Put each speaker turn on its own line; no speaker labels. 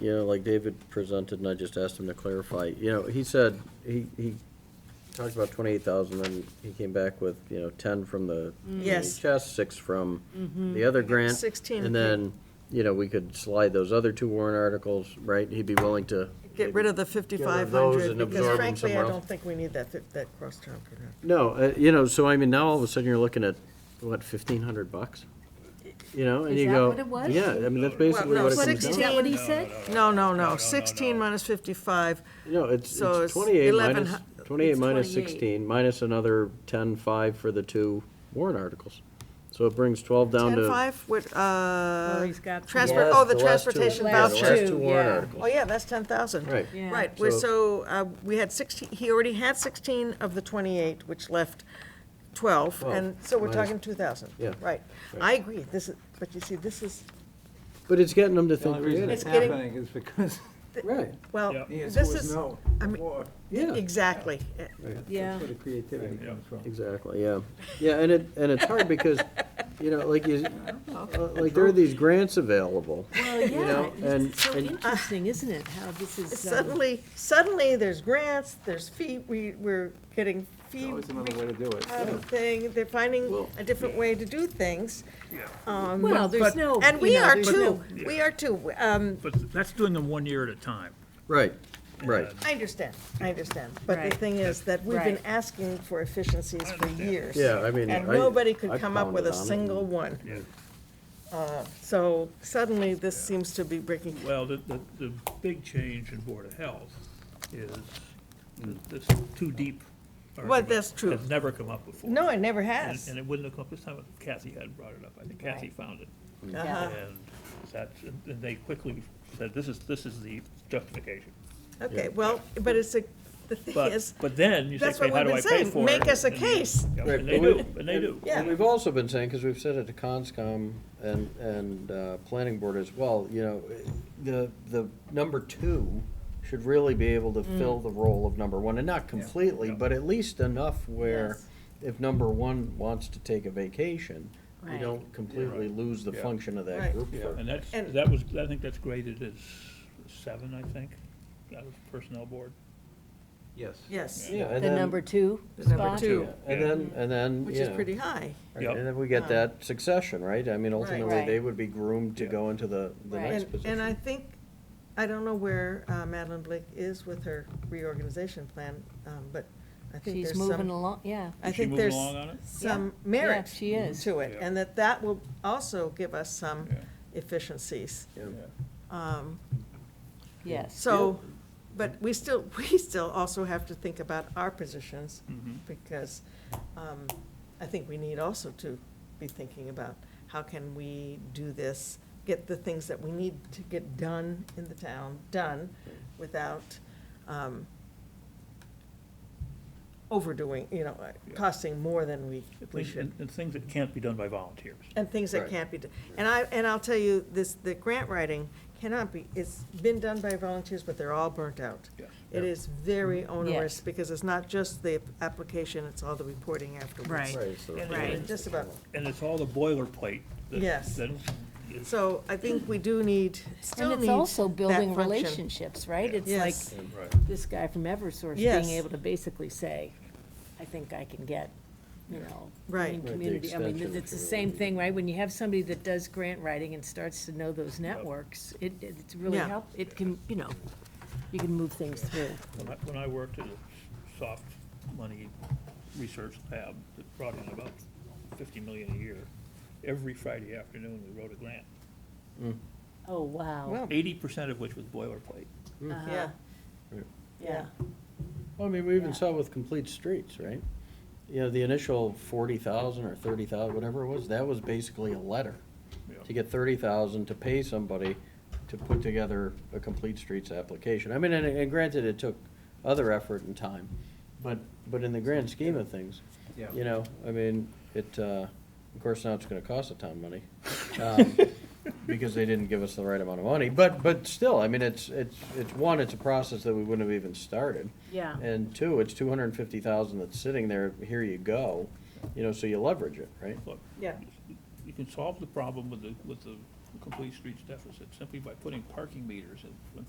you know, like David presented, and I just asked him to clarify, you know, he said, he, he talked about twenty-eight thousand, and he came back with, you know, ten from the
Yes.
NHS, six from the other grant.
16.
And then, you know, we could slide those other two warrant articles, right? He'd be willing to.
Get rid of the
Get rid of those
5,500,
and absorb
because
them
frankly, I
somewhere else.
don't think we need that, fif- that cross-town program.
No, uh, you know, so I mean, now all of a sudden you're looking at, what, fifteen hundred bucks? You know, and
Is
you
that
go.
what it was?
Yeah, I mean, that's basically
no,
what it
What,
comes
is
down
that
to.
what he said?
No, no, no, 16 minus 55,
No, it's,
So it's
it's twenty-eight
11
minus,
hu-
twenty-eight
it's
minus
28.
sixteen, minus another ten-five for the two warrant articles. So it brings twelve down to.
10.5, with, uh,
he's got-
transport,
Last-
oh, the
last two-
transportation
yeah, the last
voucher.
two
Two,
warrant
yeah.
articles.
Oh, yeah, that's 10,000.
Right.
Yeah.
Right, we're- so,
So-
uh, we had 16, he already had 16 of the 28, which left 12, and so we're
Minus-
talking 2,000.
Yeah.
Right. I agree, this is, but you see, this is,
But it's getting them to
The
think
only reason
creative.
it's
It's getting-
happening is because
Right,
well,
Yeah.
the
this
answer was
is,
no.
I mean-
War.
yeah,
exactly.
Yeah.
That's where the creativity comes from.
exactly, yeah. Yeah, and it, and it's hard because, you know, like you, uh, like there are these grants available.
Well,
You
yeah,
know,
it's-
and-
it's so
and-
interesting, isn't it, how this is, um,
Suddenly, suddenly, there's grants, there's fee, we, we're getting
There's
fee
Always another way to do it.
out of thing, they're finding
Well-
a different way to do things. Um,
Well, there's
but-
no-
And
you
we
know,
are
there's
too, we are too, um,
But that's doing them one year at a time.
Right, right.
I understand, I understand, but the
Right.
thing is that we've been
Right.
asking for efficiencies for years.
Yeah, I mean,
And
I-
nobody could
I
come up with a
pounded on it.
single one.
Yeah.
Uh, So suddenly, this seems to be breaking,
Well, the, the, the big change in Board of Health is th- this too deep. argument
that's true.
Has never come up before.
no, it never
And
has.
and it wouldn't have come up this time if Kathy hadn't brought it up. I think Kathy found it.
Uh-huh.
And that's, and they quickly said, this is, this is the justification.
Okay, well, but it's a, the thing
But,
is,
but then you say,
that's what
okay, how
we've
do
been
I pay
saying,
for it?
make us a
And-
case.
yeah,
Right,
And they
but
do,
we-
and they do.
Yeah.
And we've also been saying, because we've said it to Conscom and, and uh, Planning Board as well, you know, the, the number two should really be able to
Mm.
fill the role of number one, and not completely,
Yeah.
but at least enough where
Yes.
if number one wants to take a vacation, we
Right.
don't completely lose the
Yeah.
function of that
Right.
group. for-
And that's,
And-
that was, I think that's graded as seven, I think, out of Personnel Board.
Yes.
yes,
Yeah, and
the number
then,
two
The number
spot?
two.
yeah, and then, and then,
which
you
is
know,
pretty high. Um,
right,
Yep.
And then we get that succession, right? I mean, ultimately,
Right.
they would be groomed to
Yeah.
go into the, the
Right.
next
And,
position.
and I think, I don't know where uh, Madeline Blake is with her reorganization plan, um, but I think
She's
there's
moving
some,
along, yeah.
I
Is she
think
moving
there's
along on it?
some
Yeah.
merit
Yeah, she is.
to it,
Yeah.
and that that will also give us some
Yeah.
efficiencies.
Yeah.
Um,
Yes,
So, but we still, we still also have to think about our positions,
Mhm.
because um, I think we need also to be thinking about how can we do this, get the things that we need to get done in the town, done, without um, overdoing, you know, uh, costing more than we, we
Things-
should.
And and things that can't be done by volunteers.
And things that
Right.
can't be, done, and I, and I'll tell you, this, the grant writing cannot be, it's been done by volunteers, but they're all burnt out.
Yes.
It is very onerous,
Mm, Yes.
because it's not just the application, it's all the reporting afterwards.
Right.
Right, it's the-
And-
Right,
and-
just about,
And it's all the boilerplate. that-
Yes.
that is-
so I think we do need, still
and
need
it's also
that
building
function.
relationships, right? It's like
Yes.
this guy from Eversource
Yes.
being able to basically say, I think I can get, you know,
Right.
green
Right,
the
community, I mean,
extension
it's the
for-
same thing, right? When you have somebody that does grant writing and starts to know those networks, it, it's really
Yeah.
help, it can, you know, you can move things through.
When I, when I worked at a soft money research lab that brought in about fifty million a year, every Friday afternoon, we wrote a grant,
Oh, wow. Uh-huh.
Well,
eighty percent of which was boilerplate.
yeah,
uh,
yeah,
Yeah.
Well, I mean, we even
Yeah.
saw with complete streets, right? You know, the initial forty thousand or thirty thousand, whatever it was, that was basically a letter.
Yeah.
To get thirty thousand to pay somebody to put together a complete streets application. I mean, and, and granted, it took other effort and time, but, but in the grand scheme of things,
Yeah.
you know, I mean, it, uh, of course, now it's gonna cost a ton of money. um, because they didn't give us the right amount of money. But, but still, I mean, it's, it's, it's, one, it's a process that we wouldn't have even started.
Yeah.
And two, it's two hundred and fifty thousand that's sitting there, here you go, you know, so you leverage it, right?
Look,
yeah,
you can solve the problem with the, with the complete streets deficit simply by putting parking meters in, in